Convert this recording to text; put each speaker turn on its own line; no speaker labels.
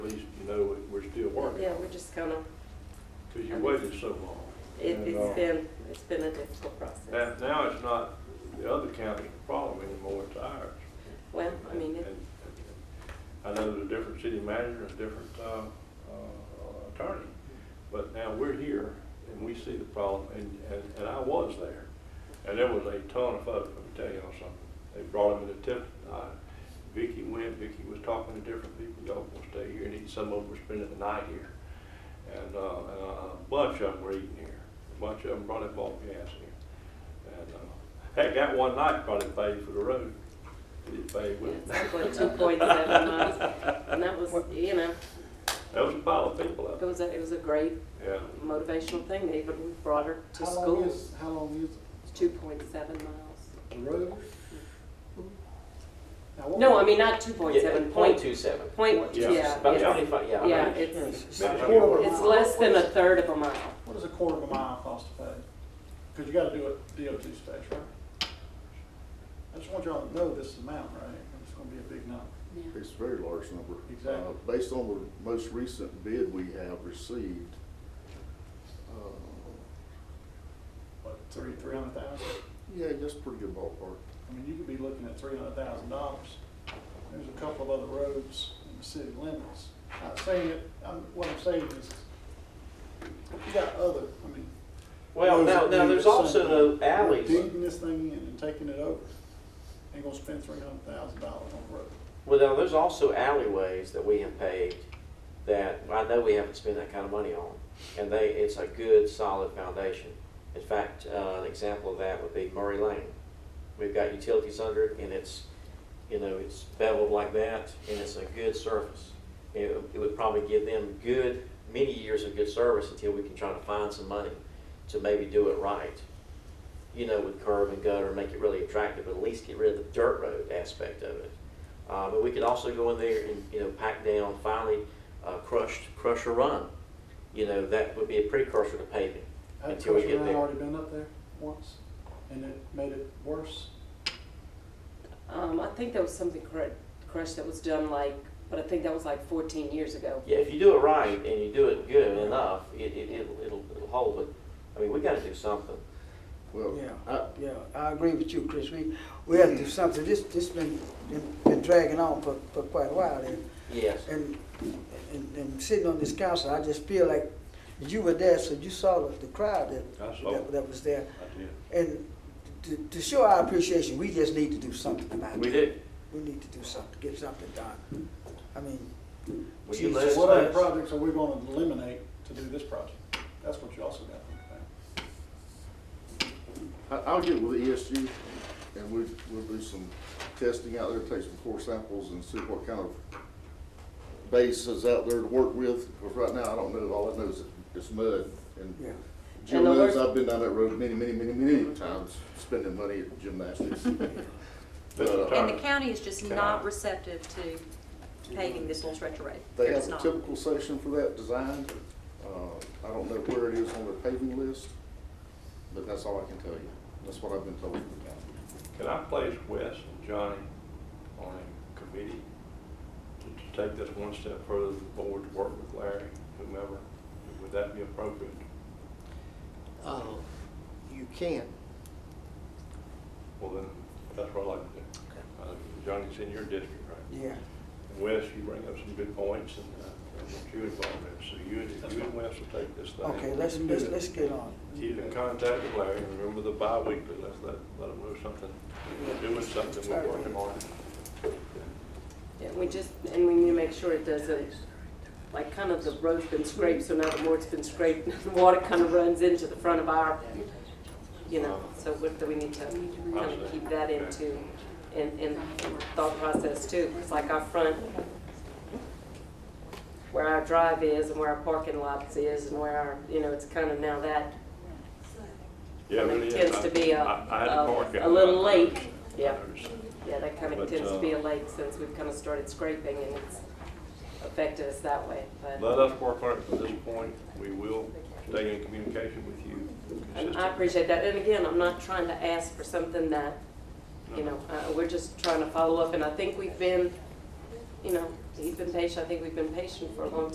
though we- we're still working
Yeah,
on
we're
it,
just kind of,
because you waited so long.
it,
And, uh,
it's been, it's been a difficult process.
Now, now it's not the other county's problem anymore, it's ours.
Well, I mean,
And-
it-
and- and I know there's a different city manager and a different uh, uh, attorney, but now we're here and we see the problem, and, and, and I was there. And there was a ton of folks, let me tell you on something. They brought him in a tip, uh, Vicky went, Vicky was talking to different people, y'all gonna stay here, and eat. some of them were spending the night here. And, uh, and a bunch of them were eating here, a bunch of them brought up all gas here. And, uh, heck, that one night probably paid for the road. It paid with it.
it's like two point seven miles, and that was, you know,
That was a pile of people out
it was, a it was a great
there. Yeah.
motivational thing. They even brought her to
How long
school.
is, how long
Two point seven miles.
is the road? Now, what
No,
was-
I mean, not two point
Yeah,
seven,
point
point,
two seven.
point,
Yeah.
yeah.
About
it's-
twenty-five, yeah.
Yeah,
right.
it's,
About a
Yeah.
quarter of a
it's
mile.
less than a
What is-
third of a mile.
What does a quarter of a mile cost to pay? Because you gotta do it DOT specs, right? I just want y'all to know this amount, right? It's gonna be a big number.
It's a very large number.
Exactly.
Uh, Based on the most recent bid we have received, uh,
What, three, three hundred thousand?
yeah, that's pretty good ballpark.
I mean, you could be looking at three hundred thousand dollars. There's a couple of other roads in the city limits. Not saying it, I'm, what I'm saying is, you got other, I mean.
Well,
roads
now,
that
now,
need
there's
the
also
same.
the alleys.
Digging this thing in and taking it over. Ain't gonna spend three hundred thousand dollars on a road.
Well, now, there's also alleyways that we have paved that I know we haven't spent that kind of money on. And they, it's a good, solid foundation. In fact, uh, an example of that would be Murray Lane. We've got utilities under it and it's, you know, it's beveled like that and it's a good surface. It, it would probably give them good, many years of good service until we can try to find some money to maybe do it right. you know, with curb and gutter, make it really attractive, but at least get rid of the dirt road aspect of it. Uh, but we could also go in there and, you know, pack down, finally, uh, crushed, crush or run. You know, that would be a precursor to paving
Had
until we
Coach
get
Ryan
there.
Already been up there once, and it made it worse.
Um, I think there was something cr- crushed that was done like, but I think that was like fourteen years ago.
Yeah, if you do it right and you do it good enough, it, it, it'll, it'll, it'll hold, but, I mean, we gotta do something.
Well,
Yeah,
I,
yeah, I agree with you, Chris. We, we have to do something. This, this been, been dragging on for, for quite a while. And,
Yes.
and, and, and sitting on this council, I just feel like you were there, so you saw the, the crowd that,
I saw.
that, that was there.
I did.
And to, to show our appreciation, we just need to do something about it.
We do.
We need to do something, get something done. I mean,
Will you
Jesus.
let us
What other
know?
projects are we gonna eliminate to do this project? That's what you also got to think about.
I- I'll get with ESG and we, we'll do some testing out there, take some core samples and see what kind of base is out there to work with. Because right now, I don't know, all I know is it's mud and
yeah.
Jim
And the
knows
worst-
I've been down that road many, many, many, many times, spending money at gymnastics. But, uh,
And the
Alright.
county is just
Can I-
not receptive to paving this little stretch of road.
They
They're
have
just
a
not.
typical section for that designed. Uh, I don't know where it is on their paving list, but that's all I can tell you. That's what I've been told from the county.
Can I place Wes and Johnny on a committee to- to take this one step further, the board to work with Larry, whomever? Would that be appropriate?
Uh, You can.
Well, then, that's what I'd like to do. Uh, Johnny's in your district, right?
Yeah.
Wes, you bring up some good points and uh, I want you involved in it. So you and, you and Wes will take this thing.
Okay, let's, let's, let's get on.
You can contact Larry, remember the bi-weekly, let's let, let them know something, we're doing something, we're working on it.
Yeah, we just, and we need to make sure it doesn't, like, kind of the road's been scraped, so now the more it's been scraped, the water kind of runs into the front of our, you know, so we, we need to kind of keep that into, in, in thought process too. It's like our front, where our drive is and where our parking lots is and where our, you know, it's kind of now that
Yeah, really is.
tends to be a,
I- I had to park
a,
out.
a little lake.
I
Yeah,
noticed that.
yeah, that kind
But,
of tends to be
uh,
a lake since we've kind of started scraping and it's affected us that way, but.
Let us work on it from this point, we will stay in communication with you
And I
consistently.
appreciate that, and again, I'm not trying to ask for something that, you know, uh, we're just trying to follow up, and I think we've been, you know, he's been patient, I think we've been patient for a long